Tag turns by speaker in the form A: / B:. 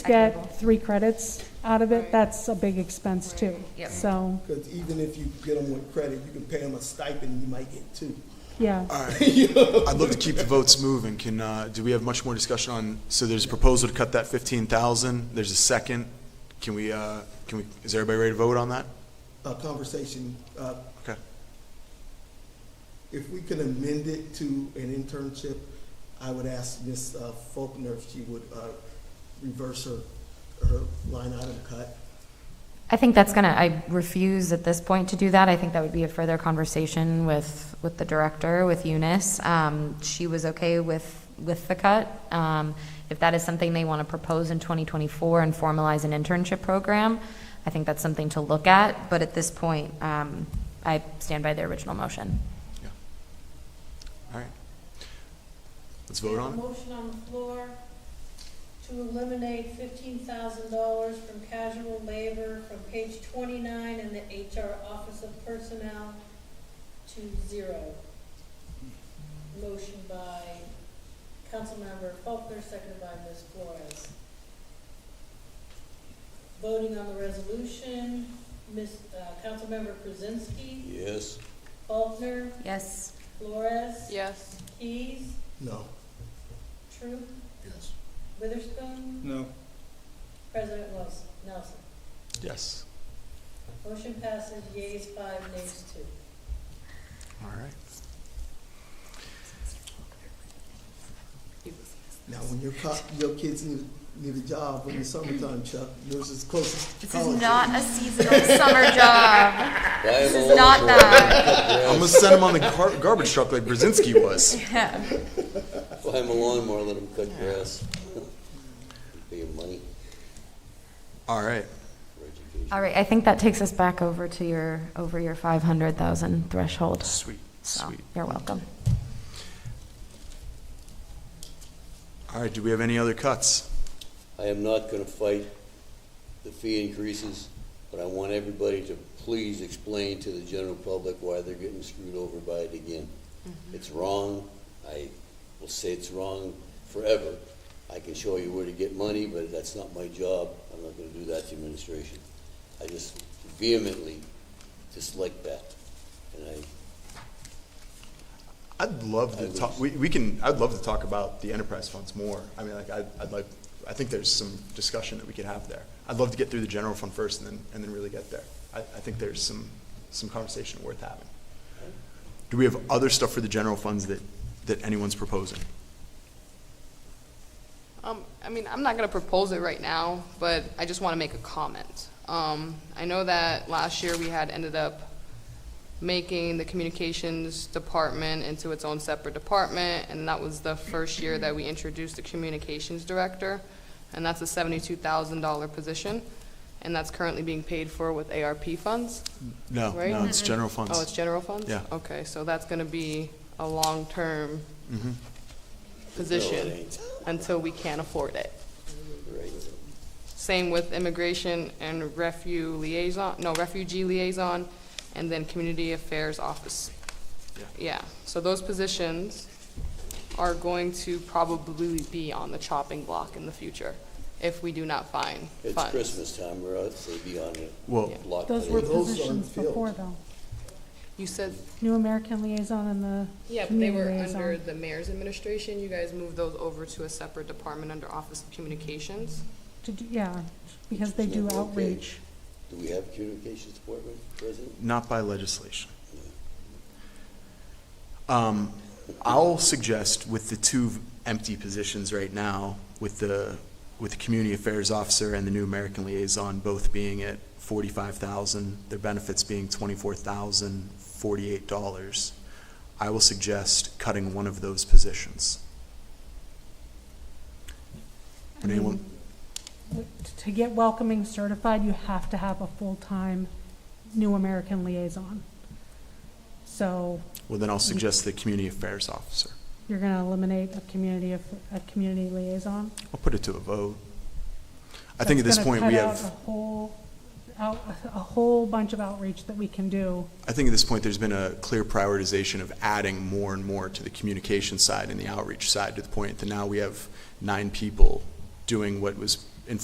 A: get three credits out of it, that's a big expense too.
B: Yep.
A: So,
C: Because even if you get them with credit, you can pay them a stipend, you might get two.
A: yeah.
D: All right. I'd love to keep the votes moving. Can, uh, do we have much more discussion on, so there's a proposal to cut that fifteen thousand. There's a second. Can we, uh, can we, is everybody ready to vote on that?
C: A conversation, uh,
D: Okay.
C: if we can amend it to an internship, I would ask Ms. uh, Faulkner if she would uh, reverse her, her line item cut.
B: I think that's gonna, I refuse at this point to do that. I think that would be a further conversation with, with the director, with Eunice. Um, she was okay with, with the cut. Um, if that is something they wanna propose in 2024 and formalize an internship program, I think that's something to look at, but at this point, um, I stand by the original motion.
D: All right. Let's vote on it.
E: Motion on the floor to eliminate fifteen thousand dollars from casual labor from page twenty-nine in the HR Office of Personnel to zero. Motion by Councilmember Faulkner, seconded by Ms. Flores. Voting on the resolution, Ms., uh, Councilmember Krasinski,
F: Yes.
E: Faulkner,
B: Yes.
E: Flores.
G: Yes.
E: Keys,
C: No.
E: Troop,
F: Yes.
E: Witherspoon.
H: No.
E: President Wilson, Nelson.
D: Yes.
E: Motion passes yeas five, nays two.
D: All right.
C: Now, when your, co- your kids need, need a job in the summertime, Chuck, yours is closest to college.
B: a seasonal summer job.
F: This
B: is not that.
D: I'm gonna send him on the gar- garbage truck like Brzezinski was.
F: Buy him a lawnmower, let him cut grass. Pay him money
D: All right.
F: for education.
B: All right, I think that takes us back over to your, over your 500,000 threshold.
D: Sweet,
B: So,
D: sweet.
B: You're welcome.
D: All right, do we have any other cuts?
F: I am not gonna fight the fee increases, but I want everybody to please explain to the general public why they're getting screwed over by it again. It's wrong, I will say it's wrong forever. I can show you where to get money, but that's not my job, I'm not gonna do that to administration. I just vehemently dislike that, and I,
D: I'd love to
F: I
D: talk, we, we can, I'd love to talk about the enterprise funds more. I mean, like, I'd, I'd like, I think there's some discussion that we could have there. I'd love to get through the general fund first and then, and then really get there. I, I think there's some, some conversation worth having. Do we have other stuff for the general funds that, that anyone's proposing?
G: Um, I mean, I'm not gonna propose it right now, but I just wanna make a comment. Um, I know that last year we had ended up making the communications department into its own separate department, and that was the first year that we introduced the communications director, and that's a seventy-two thousand dollar position, and that's currently being paid for with ARP funds.
D: No,
G: Right?
D: no, it's general funds.
G: Oh, it's general funds?
D: Yeah.
G: Okay, so that's gonna be a long-term
D: Mhm.
G: position
F: No, it ain't.
G: until we can't afford it.
F: right,
G: Same with immigration and refugee liaison, no, refugee liaison, and then community affairs office.
D: Yeah.
G: Yeah, so those positions are going to probably be on the chopping block in the future if we do not find
F: it's
G: funds.
F: Christmas time, we're out, so be on it.
D: Well,
F: Block
A: Those
F: party.
A: were
C: Those aren't
A: positions
C: filled.
A: before though.
G: You said,
A: New American Liaison and the
G: yeah, but they
A: Community
G: were
A: Liaison.
G: under the mayor's administration. You guys moved those over to a separate department under Office of Communications.
A: to do- Yeah, because they do
F: Okay.
A: outreach.
F: Do we have communications department, President?
D: not by legislation. Um, I'll suggest with the two empty positions right now, with the, with the community affairs officer and the new American liaison both being at forty-five thousand, their benefits being twenty-four thousand forty-eight dollars, I will suggest cutting one of those positions. Would anyone,
A: To get welcoming certified, you have to have a full-time New American Liaison. So
D: well, then I'll suggest the community affairs officer.
A: you're gonna eliminate a community of, a community liaison?
D: I'll put it to a vote. I think at
A: That's
D: this
A: gonna
D: point,
A: cut
D: we
A: out
D: have.
A: A whole, out- a whole bunch of outreach that we can do.
D: I think at this point, there's been a clear prioritization of adding more and more to the communication side and the outreach side to the point that now we have nine people doing what was